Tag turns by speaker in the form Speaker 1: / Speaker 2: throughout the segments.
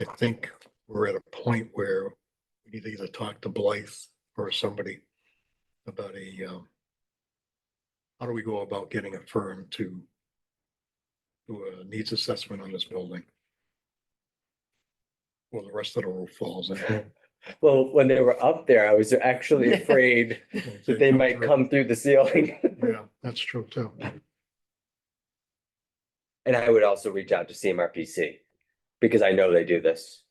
Speaker 1: I think we're at a point where we need to either talk to Blythe or somebody about a, um, how do we go about getting a firm to do a needs assessment on this building? Well, the rest of the roof falls in.
Speaker 2: Well, when they were up there, I was actually afraid that they might come through the ceiling.
Speaker 1: Yeah, that's true too.
Speaker 2: And I would also reach out to CMRPC because I know they do this.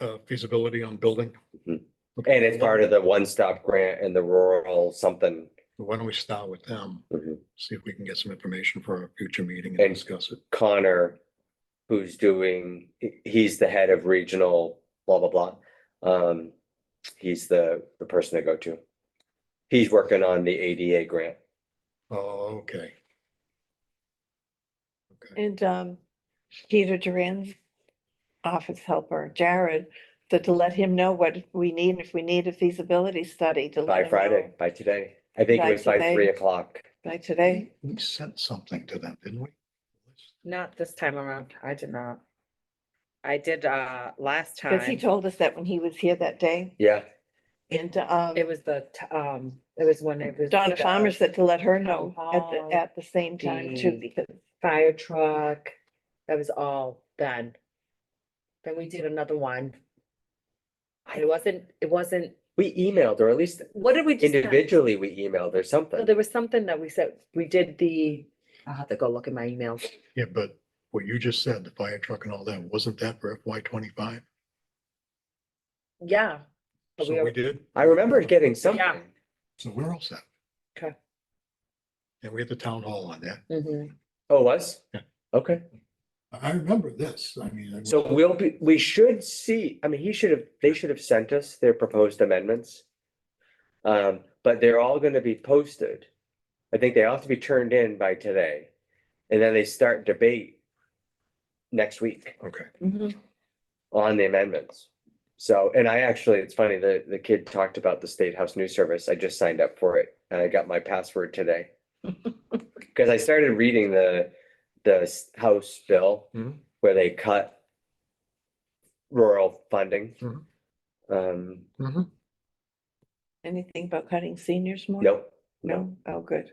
Speaker 1: Uh, feasibility on building.
Speaker 2: Mhm. And it's part of the one-stop grant and the rural something.
Speaker 1: Why don't we start with them, see if we can get some information for a future meeting and
Speaker 2: Mm-hmm. And-
Speaker 1: discuss it.
Speaker 2: Connor, who's doing, he- he's the head of regional blah, blah, blah. Um, he's the, the person to go to. He's working on the ADA grant.
Speaker 1: Oh, okay. Okay,
Speaker 3: And um, Peter Duran's office helper, Jared, to to let him know what we need, if we need a feasibility study to. let
Speaker 2: By
Speaker 3: him
Speaker 2: Friday,
Speaker 3: know
Speaker 2: by today. I think it
Speaker 3: By
Speaker 2: was by
Speaker 3: today.
Speaker 2: three o'clock.
Speaker 3: By today,
Speaker 1: we sent something to them, didn't we?
Speaker 4: Not this time around. I did not. I did, uh, last time.
Speaker 3: because he told us that when he was here that day.
Speaker 2: Yeah,
Speaker 3: And um,
Speaker 4: It was the, t- um, it was when it was.
Speaker 3: Donna
Speaker 4: the
Speaker 3: Farmer said to let her know at
Speaker 4: Oh,
Speaker 3: the, at the same time too,
Speaker 4: the-
Speaker 3: because
Speaker 4: Fire truck. That was all done. Then we did another one. It wasn't, it wasn't,
Speaker 2: we emailed or at least
Speaker 4: what did we? decide?
Speaker 2: individually we emailed or
Speaker 4: No,
Speaker 2: something.
Speaker 4: There was something that we said, we did the, I'll have to go look at my emails.
Speaker 1: Yeah, but what you just said, the fire truck and all that, wasn't that for FY twenty-five?
Speaker 2: Oh,
Speaker 4: Yeah. but
Speaker 1: So
Speaker 4: are-
Speaker 1: we did,
Speaker 2: I remember getting something.
Speaker 1: so we're all set.
Speaker 4: Okay.
Speaker 1: And we had the town hall on that.
Speaker 4: Mhm.
Speaker 2: Oh, it was?
Speaker 1: Yeah.
Speaker 2: Okay,
Speaker 1: I I remember this, I mean. I-
Speaker 2: so we'll be, we should see, I mean, he should have, they should have sent us their proposed amendments. Um, but they're all gonna be posted. I think they all have to be turned in by today. And then they start debate next week
Speaker 1: Okay,
Speaker 2: on the amendments. So, and I actually, it's funny, the, the kid talked about the State House News Service. I just signed up for it and I got my password today. Cause I started reading the, the s- House bill
Speaker 1: Mhm.
Speaker 2: where they cut rural funding.
Speaker 1: Mhm.
Speaker 2: Um,
Speaker 1: Mhm.
Speaker 3: anything about cutting seniors more?
Speaker 2: nope, no,
Speaker 3: No, oh, good.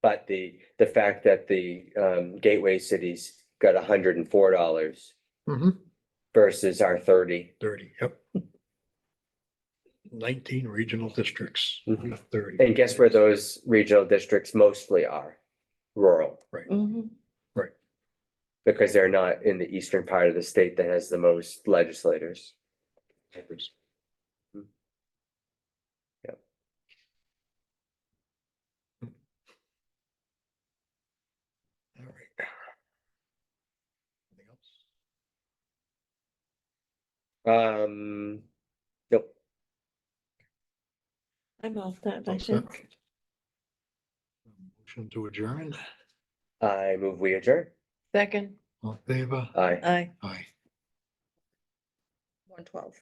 Speaker 2: but the, the fact that the, um, gateway cities got hundred and four dollars
Speaker 1: Mhm.
Speaker 2: versus our thirty.
Speaker 1: thirty, yep. Nineteen regional districts,
Speaker 2: Mhm.
Speaker 1: thirty.
Speaker 2: And guess where those regional districts mostly are? Rural.
Speaker 3: Mhm.
Speaker 2: because they're not in the eastern part of the state that has the most legislators.
Speaker 1: All right. Anything else?
Speaker 2: Um, nope,
Speaker 3: I'm all set, I
Speaker 1: All set.
Speaker 3: think.
Speaker 1: Motion to adjourn,
Speaker 2: I move we adjourn.
Speaker 3: Second, Uh,
Speaker 1: all in favor,
Speaker 2: Aye.
Speaker 3: aye.
Speaker 1: aye.
Speaker 4: One twelve.